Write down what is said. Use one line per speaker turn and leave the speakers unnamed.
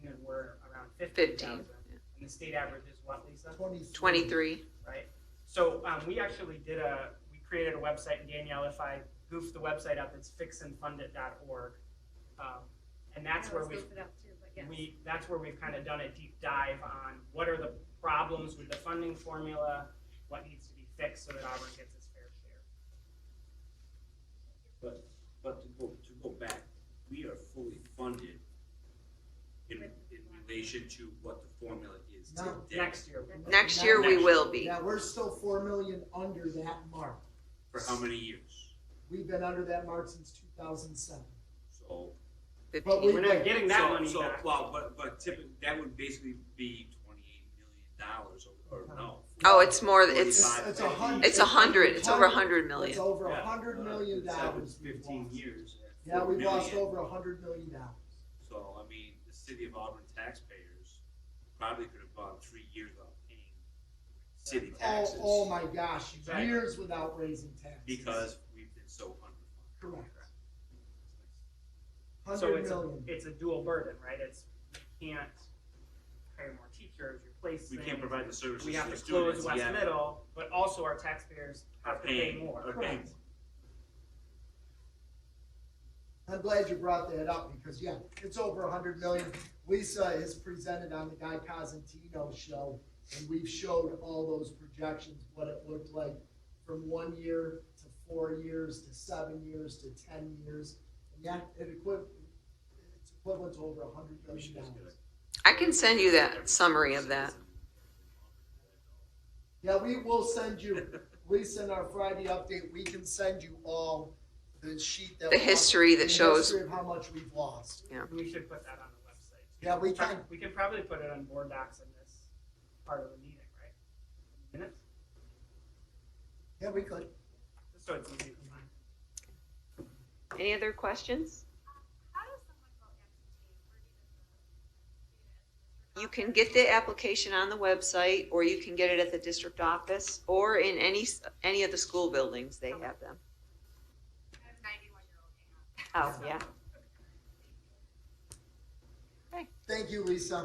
15.
And the state average is what, Lisa?
Twenty-three.
right? So um, we actually did a, we created a website, and Danielle, if I goof the website up, it's fixandfundit.org. Um, And that's where we, we, that's where we've kind of done a deep dive on what are the problems with the funding formula, what needs to be fixed so that Auburn gets its fair share.
But, but to go, to go back, we are fully funded in, in relation to what the formula is today.
No.
Next year,
Next year, we will be.
Yeah, we're still four million under that mark.
For how many years?
We've been under that mark since two thousand seven.
So.
we-
Fifteen.
we're not getting that
so-
money
so,
back.
Well, but, but typically, that would basically be twenty-eight million dollars or, or no.
Oh, it's more, it's,
Forty-five,
It's a
fifty.
hundred.
it's a hundred, it's over a hundred million.
It's over
Yeah,
a hundred
uh,
million
so
dollars.
it's
we've
Fifteen
lost.
years. at
Yeah,
four
we've lost
million.
over a hundred million dollars.
So, I mean, the city of Auburn taxpayers probably could have gone three years without paying city
Oh,
taxes.
oh my gosh,
Exactly.
years without raising taxes.
Because we've been so underfunded.
Correct.
So
Hundred
it's a,
million.
it's a dual burden, right? It's, you can't hire more teachers, replace
We
things.
can't provide the services
we
to
have
the
to close
students
West
yet.
Middle, but also our taxpayers
Are
have to pay
paying,
more.
are paying.
Correct.
I'm glad you brought that up because yeah, it's over a hundred million. Lisa has presented on the Guy Cosentino show and we've showed all those projections, what it looked like from one year to four years to seven years to ten years. And that, it equiv- it's equivalent to over a hundred
We should
million
just
dollars.
get
I
a-
can send you that summary of that.
Yeah, we will send you, Lisa, in our Friday update, we can send you all the sheet that.
The
we-
history that
the
shows-
history of how much we've lost.
We should put that on the website.
Yeah, we can.
We can probably put it on board docs in this part of the meeting, right? Minutes,
Yeah, we could.
just so it's easy to find.
Any other questions? You can get the application on the website, or you can get it at the district office, or in any, s- any of the school buildings, they have them. Oh, yeah.
Thank you, Lisa.